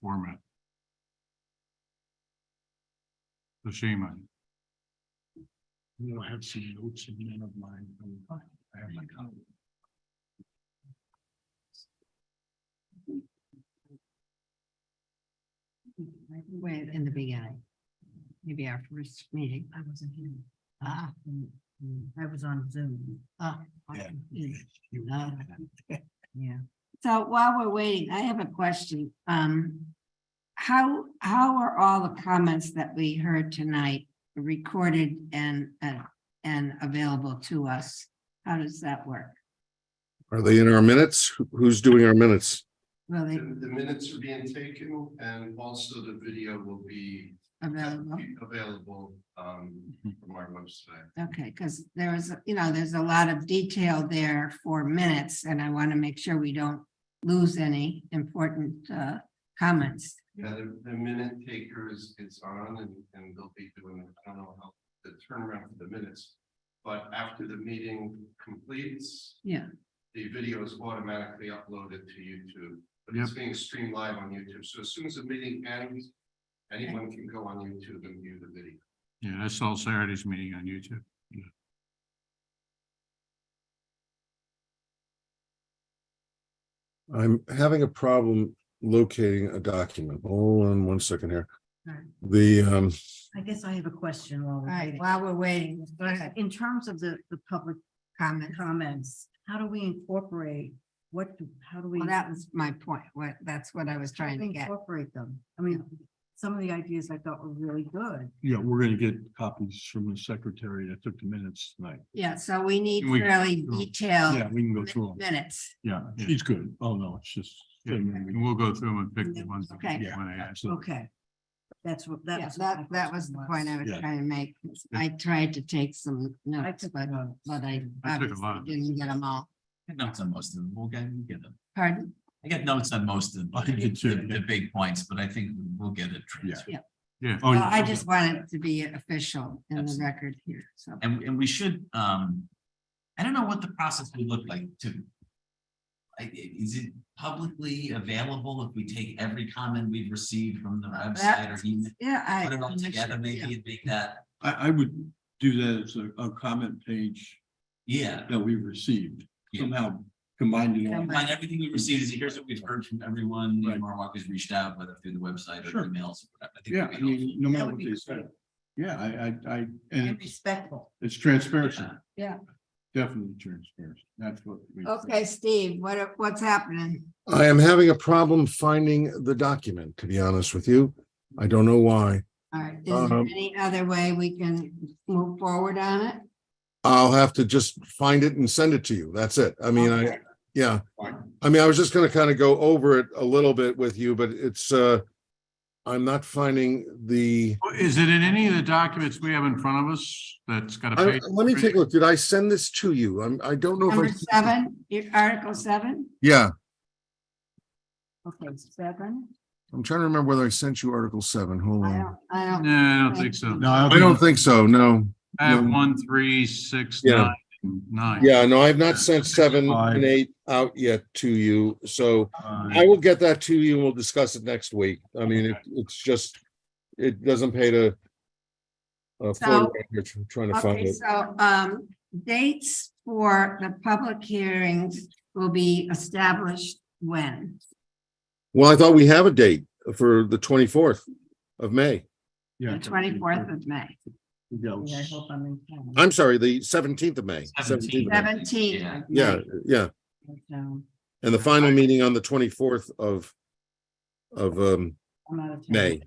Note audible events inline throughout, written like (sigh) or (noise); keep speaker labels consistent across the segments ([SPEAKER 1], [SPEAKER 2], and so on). [SPEAKER 1] format. The shame on. You know, I have some notes in none of mine. I have my copy.
[SPEAKER 2] Way in the beginning. Maybe our first meeting. I wasn't here. Ah. I was on Zoom. Ah.
[SPEAKER 1] Yeah.
[SPEAKER 2] Mm.
[SPEAKER 1] You-
[SPEAKER 2] No. (laughs) Yeah. So while we're waiting, I have a question. Um, how, how are all the comments that we heard tonight recorded and, uh, and available to us? How does that work?
[SPEAKER 3] Are they in our minutes? Who- Who's doing our minutes?
[SPEAKER 2] Will they
[SPEAKER 4] The the minutes are being taken and also the video will be
[SPEAKER 2] available?
[SPEAKER 4] available um from our website.
[SPEAKER 2] Okay, because there is, you know, there's a lot of detail there for minutes and I want to make sure we don't lose any important, uh, comments.
[SPEAKER 4] Yeah, the the minute taker is is on and and they'll be doing, I don't know how the turnaround for the minutes. But after the meeting completes,
[SPEAKER 2] Yeah,
[SPEAKER 4] the video is automatically uploaded to YouTube. But it's being streamed live on YouTube. So as soon as the meeting ends, anyone can go on YouTube and view the video.
[SPEAKER 1] Yeah, I saw Saturday's meeting on YouTube. Yeah.
[SPEAKER 3] I'm having a problem locating a document. Hold on one second here.
[SPEAKER 5] Alright.
[SPEAKER 3] The, um,
[SPEAKER 5] I guess I have a question while
[SPEAKER 2] all
[SPEAKER 5] we're
[SPEAKER 2] right,
[SPEAKER 5] waiting.
[SPEAKER 2] while we're waiting, go ahead.
[SPEAKER 5] In terms of the, the public
[SPEAKER 2] comment.
[SPEAKER 5] comments, how do we incorporate, what, do how do we
[SPEAKER 2] Well, that was my point. What, that's what I was trying to get.
[SPEAKER 5] incorporate them? I mean, some of the ideas I thought were really good.
[SPEAKER 1] Yeah, we're gonna get copies from the secretary that took the minutes tonight.
[SPEAKER 2] Yeah, so we need
[SPEAKER 1] We-
[SPEAKER 2] fairly
[SPEAKER 1] Mm.
[SPEAKER 2] detailed
[SPEAKER 1] Yeah, we can go through them.
[SPEAKER 2] minutes.
[SPEAKER 1] Yeah, she's good. Oh, no, it's just. And we'll go through them and pick the ones. that we
[SPEAKER 2] Okay.
[SPEAKER 1] wanna add. So-
[SPEAKER 5] Okay. That's what,
[SPEAKER 2] Yeah,
[SPEAKER 5] that's.
[SPEAKER 2] that, that was the point I was
[SPEAKER 1] Yeah.
[SPEAKER 2] trying to make. I tried to take some notes,
[SPEAKER 5] took
[SPEAKER 2] but,
[SPEAKER 5] notes.
[SPEAKER 2] but I
[SPEAKER 1] I took a lot
[SPEAKER 2] obviously
[SPEAKER 1] of
[SPEAKER 2] didn't get them all.
[SPEAKER 6] I got notes on most of them. We'll get, we'll get them.
[SPEAKER 2] Pardon?
[SPEAKER 6] I got notes on most of them,
[SPEAKER 1] I did too,
[SPEAKER 6] the,
[SPEAKER 1] yeah.
[SPEAKER 6] the big points, but I think we'll get it. transcript.
[SPEAKER 1] Oh, Yeah.
[SPEAKER 6] Oh,
[SPEAKER 2] Well, I just want it to be official in the
[SPEAKER 6] Absolutely.
[SPEAKER 2] record here, so.
[SPEAKER 6] And, and we should, um, I don't know what the process would look like to. I, is it publicly available if we take every comment we've received from the website or email?
[SPEAKER 2] Yeah, I.
[SPEAKER 6] Put it all together, maybe
[SPEAKER 2] yeah.
[SPEAKER 6] and make that,
[SPEAKER 7] I, I would do that as a, a comment page
[SPEAKER 6] yeah.
[SPEAKER 7] that we received
[SPEAKER 6] Yeah.
[SPEAKER 7] somehow combined it all.
[SPEAKER 6] Combine everything we received, is here's what we've heard from everyone, you know,
[SPEAKER 7] Right.
[SPEAKER 6] Marwak has reached out, whether through the website or
[SPEAKER 7] Sure.
[SPEAKER 6] emails. or whatever. I think
[SPEAKER 7] Yeah,
[SPEAKER 6] that'd
[SPEAKER 7] I
[SPEAKER 6] be helpful.
[SPEAKER 7] mean, no
[SPEAKER 5] That
[SPEAKER 7] matter
[SPEAKER 5] would
[SPEAKER 7] what
[SPEAKER 5] be
[SPEAKER 7] they
[SPEAKER 5] great.
[SPEAKER 7] said. Yeah, I, I, I,
[SPEAKER 5] And
[SPEAKER 7] and
[SPEAKER 5] respectful.
[SPEAKER 7] it's transparency.
[SPEAKER 2] Yeah.
[SPEAKER 7] Definitely transparency. That's what. we-
[SPEAKER 2] Okay, Steve, what, what's happening?
[SPEAKER 3] I am having a problem finding the document, to be honest with you. I don't know why.
[SPEAKER 2] All right, is there
[SPEAKER 3] Um,
[SPEAKER 2] any other way we can move forward on it?
[SPEAKER 3] I'll have to just find it and send it to you. That's it. I mean, I, yeah. I mean, I was just gonna kind of go over it a little bit with you, but it's, uh, I'm not finding the,
[SPEAKER 1] Is it in any of the documents we have in front of us that's got a
[SPEAKER 3] I,
[SPEAKER 1] page?
[SPEAKER 3] let me take a look. Did I send this to you? I'm, I don't know
[SPEAKER 2] Number
[SPEAKER 3] if I.
[SPEAKER 2] seven, your article seven?
[SPEAKER 3] Yeah,
[SPEAKER 2] Okay, seven.
[SPEAKER 3] I'm trying to remember whether I sent you Article seven. Hold
[SPEAKER 2] I
[SPEAKER 3] on.
[SPEAKER 2] don't, I don't,
[SPEAKER 1] No, I don't think so.
[SPEAKER 2] No,
[SPEAKER 3] I don't think so, no.
[SPEAKER 1] I have
[SPEAKER 3] no.
[SPEAKER 1] one, three, six,
[SPEAKER 3] Yeah.
[SPEAKER 1] nine, and nine.
[SPEAKER 3] Yeah, no, I've not sent seven
[SPEAKER 7] Five.
[SPEAKER 3] and eight out yet to you, so I
[SPEAKER 1] Uh,
[SPEAKER 3] will get that to you and we'll discuss it next week. I mean, it, it's just, it doesn't pay to uh,
[SPEAKER 2] So-
[SPEAKER 3] float around here tr- trying to find
[SPEAKER 2] okay,
[SPEAKER 3] it.
[SPEAKER 2] so, um, dates for the public hearings will be established when?
[SPEAKER 3] Well, I thought we have a date for the twenty-fourth of May.
[SPEAKER 2] The twenty-fourth of May,
[SPEAKER 5] Yeah, I hope I'm in town.
[SPEAKER 3] I'm sorry, the seventeenth of May.
[SPEAKER 6] 17th.
[SPEAKER 3] 17th of May.
[SPEAKER 2] seventeen.
[SPEAKER 6] Yeah.
[SPEAKER 3] Yeah, yeah,
[SPEAKER 5] So,
[SPEAKER 3] and the final meeting on the twenty-fourth of of um,
[SPEAKER 5] I'm out of town.
[SPEAKER 3] May.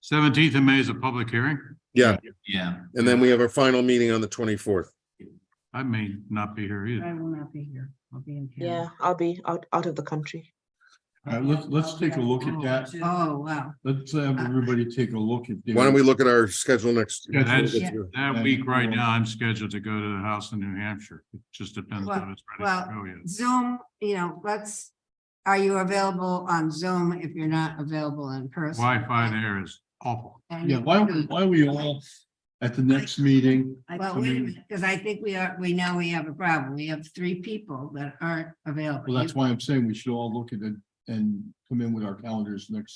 [SPEAKER 1] Seventeenth of May is a public hearing.
[SPEAKER 3] Yeah,
[SPEAKER 6] Yeah.
[SPEAKER 3] and then we have our final meeting on the twenty-fourth.
[SPEAKER 1] I may not be here
[SPEAKER 5] I
[SPEAKER 1] either.
[SPEAKER 5] will not be here. I'll be in town.
[SPEAKER 8] Yeah, I'll be out, out of the country.
[SPEAKER 3] Uh,
[SPEAKER 7] All right, let's, let's take a look at that.
[SPEAKER 2] Oh, wow.
[SPEAKER 7] Let's have everybody take a look at. their-
[SPEAKER 3] Why don't we look at our schedule next?
[SPEAKER 1] Yeah, that's-
[SPEAKER 3] Yeah.
[SPEAKER 1] That week right now, I'm scheduled to go to the house in New Hampshire. It just depends on it's ready to go yet.
[SPEAKER 2] Zoom, you know, let's, are you available on Zoom if you're not available in person?
[SPEAKER 1] Wi-Fi there is awful.
[SPEAKER 2] And
[SPEAKER 7] Yeah,
[SPEAKER 2] you
[SPEAKER 7] why,
[SPEAKER 2] can-
[SPEAKER 7] don't- why we all at the next meeting,
[SPEAKER 5] I
[SPEAKER 2] Well,
[SPEAKER 5] come
[SPEAKER 2] wait a
[SPEAKER 5] in-
[SPEAKER 2] minute, because I think we are, we know we have a problem. We have three people that aren't available.
[SPEAKER 7] well, that's why I'm saying we should all look at the
[SPEAKER 4] and come in with our calendars next